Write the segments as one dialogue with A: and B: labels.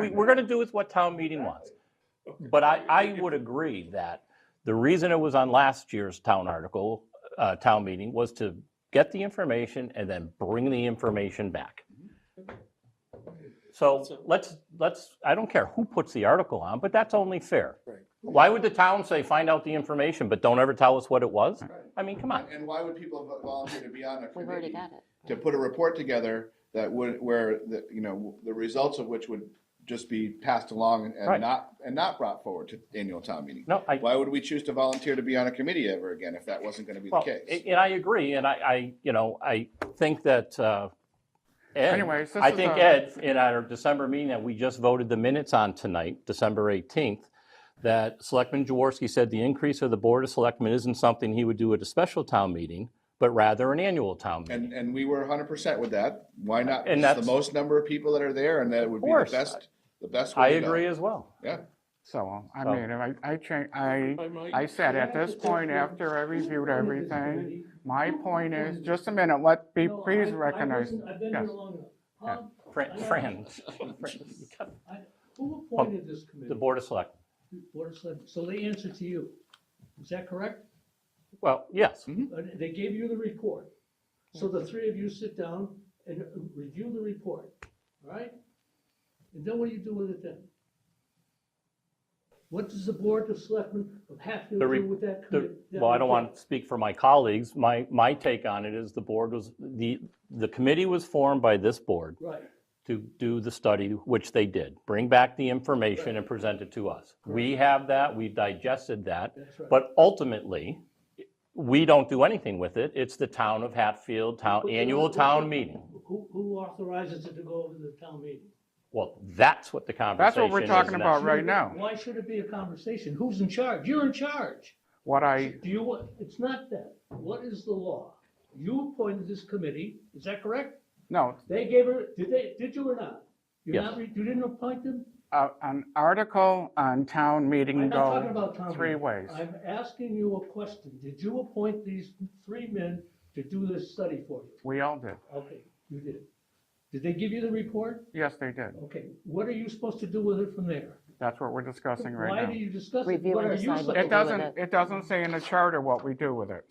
A: We, we're gonna do with what town meeting wants. But I, I would agree that the reason it was on last year's town article, uh, town meeting was to get the information and then bring the information back. So let's, let's, I don't care who puts the article on, but that's only fair.
B: Right.
A: Why would the town say, find out the information, but don't ever tell us what it was?
B: Right.
A: I mean, come on.
B: And why would people vo- volunteer to be on a
C: We've already
B: committee
C: got it.
B: to put a report together that would, where, the you know, the results of which would just be passed along and-
A: Right.
B: and not, and not brought forward to annual town meeting?
A: No, I,
B: Why would we choose to volunteer to be on a committee ever again if that wasn't gonna be the
A: well,
B: case?
A: and I agree, and I, I, you know, I think that, uh, Ed,
D: Anyways, this
A: I
D: is
A: think
D: a-
A: Ed, in our December meeting that we just voted the minutes on tonight, December 18th, that Selectman Jaworski said the increase of the Board of Selectmen isn't something he would do at a special town meeting, but rather an annual town meeting.
B: And, and we were hundred percent with that. Why not?
A: And
B: It's
A: that's-
B: The most number of people that are there and that would be the
A: course.
B: best, the best.
A: I
B: way to go.
A: agree as well.
B: Yeah.
D: So, I
A: So-
D: mean, I, I change, I,
E: I might-
D: I said, at this point, after I reviewed everything, my point is, just a minute, let me,
F: No,
D: please
F: I- I
D: recognize.
F: wasn't- I've been
D: yes.
F: here Um, long enough. Bob,
A: Fran, Fran, you got
F: who appointed this committee?
A: the Board of Selectmen.
F: Board of Selectmen. So they answer to you. Is that correct?
A: Well, yes,
D: Mm-hmm. Hmm?
F: Uh, They gave you the report. So the three of you sit down and uh, review the report, all right? And then what do you do with it then? What does the Board of Selectmen have to
A: The re-
F: do with that
A: the-
F: committee?
A: well, I don't want to speak for my colleagues. My, my take on it is the board was, the, the committee was formed by this board
F: Right.
A: to do the study, which they did, bring back the information and present it to us. We have that, we digested that,
F: That's right.
A: but ultimately, we don't do anything with it. It's the town of Hatfield, town,
F: But-
A: annual town meeting.
F: Who, who authorizes it to go over to the town meeting?
A: Well, that's what the conversation is.
D: what we're talking
A: and
D: about
A: that's-
D: right now.
F: Why should it be a conversation? Who's in charge? You're in charge.
D: What I,
F: Do you want, it's not that. What is the law? You appointed this committee, is that correct?
D: no,
F: They gave her, did they, did you or not? You're
A: Yes.
F: not, re- you didn't appoint them?
D: a- uh, an article on town meeting
F: I'm not talking
D: go
F: about Tom.
D: three ways.
F: I'm asking you a question. Did you appoint these three men to do this study for you?
D: We all did.
F: Okay, you did. Did they give you the report?
D: Yes, they did.
F: Okay, what are you supposed to do with it from there?
D: That's what we're discussing
F: Why
D: right
F: do
D: now.
F: you discuss it?
C: Review
F: What
C: and
F: are you
C: decide what to
F: supposed to
D: It
F: do?
C: with
D: doesn't,
C: it.
D: it doesn't say in the charter what we do with it.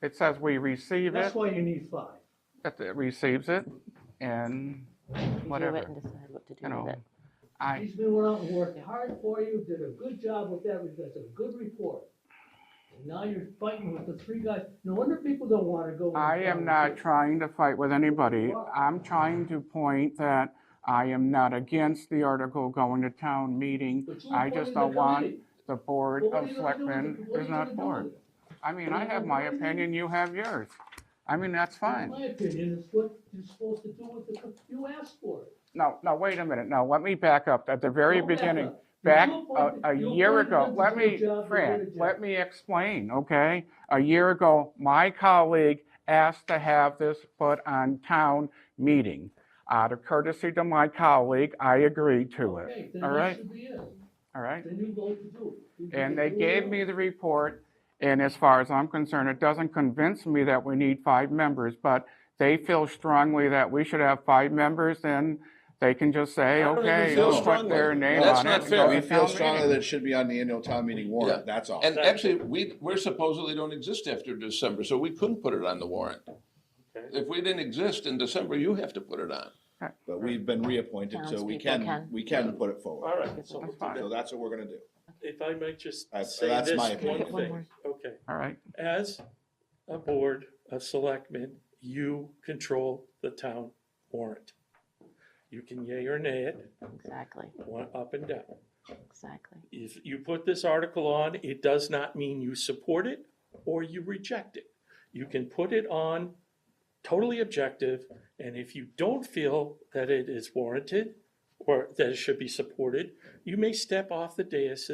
D: It says we receive it,
F: That's why you need five.
D: that it receives it, and
C: Review it
D: whatever,
C: and decide what to
D: you
C: do with
D: know.
C: it.
D: I,
F: These men went out and worked hard for you, did a good job with that, that's a good report. And now you're fighting with the three guys, no wonder people don't wanna go. in the
D: I am not
F: conversation.
D: trying to fight with anybody. I'm trying to point that I am not against the article going to town meeting.
F: But you
D: I
F: appointed
D: just
F: the
D: don't want
F: committee.
D: the board
F: Well, what
D: of
F: are you gonna do with
D: selectmen
F: it? What are
D: is
F: you
D: not
F: gonna do with
D: board.
F: it?
D: I mean, I have my opinion, you have yours. I mean, that's
F: In
D: fine.
F: my opinion, it's what you're supposed to do with the, co- you asked for it.
D: No, no, wait a minute. No, let me back up at the very
F: Don't back
D: beginning.
F: up. You
D: Back
F: appointed-
D: a, a
F: you
D: year
F: appointed
D: ago,
F: them to
D: let
F: do the
D: me,
F: job you
D: Fran,
F: did.
D: let me explain, okay? A year ago, my colleague asked to have this put on town meeting. Out of courtesy to my colleague, I agreed to
F: Okay,
D: it,
F: then
D: all
F: that
D: right?
F: should be it.
D: All right?
F: Then you vote to do it. You
D: And
F: can
D: they
F: do it
D: gave
F: now.
D: me the report, and as far as I'm concerned, it doesn't convince me that we need five members, but they feel strongly that we should have five members, then they can just say,
E: don't think we
D: okay,
E: feel
D: they'll put their
E: strongly.
D: name
E: That's
D: on it.
E: not
D: and
E: fair.
D: go
B: We
D: to
B: feel
D: town
B: strongly
D: meeting.
B: that it should be on the annual town meeting warrant, that's all.
G: And actually, we, we're supposedly don't exist after December, so we couldn't put it on the warrant. If we didn't exist in December, you have to put it on.
B: But we've been reappointed, so we
C: Townspeople
B: can,
C: can.
B: we can put it
E: All
B: forward.
E: right, so
D: That's fine.
B: So that's what we're gonna do.
E: if I might just
B: I-
E: say
B: that's
E: this
B: my
E: one
B: opinion.
C: One
E: thing,
C: more.
E: okay.
D: All right,
E: As a board of selectmen, you control the town warrant. You can yay or nay it,
C: Exactly,
E: one up and down.
C: exactly.
E: If you put this article on, it does not mean you support it or you reject it. You can put it on totally objective, and if you don't feel that it is warranted or that it should be supported, you may step off the dais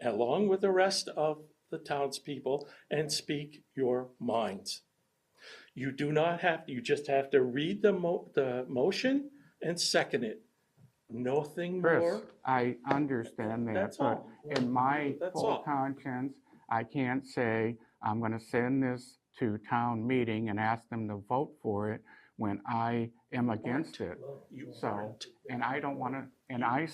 E: along with the rest of the townspeople and speak your minds. You do not have, you just have to read the mo- the motion and second it. Nothing
D: Chris,
E: more.
D: I understand that,
E: That's
D: but
E: all.
D: in my
E: That's
D: full
E: all.
D: conscience, I can't say, I'm gonna send this to town meeting and ask them to vote for it when I am against it.
E: You
D: So,
E: aren't.
D: And I don't wanna, and I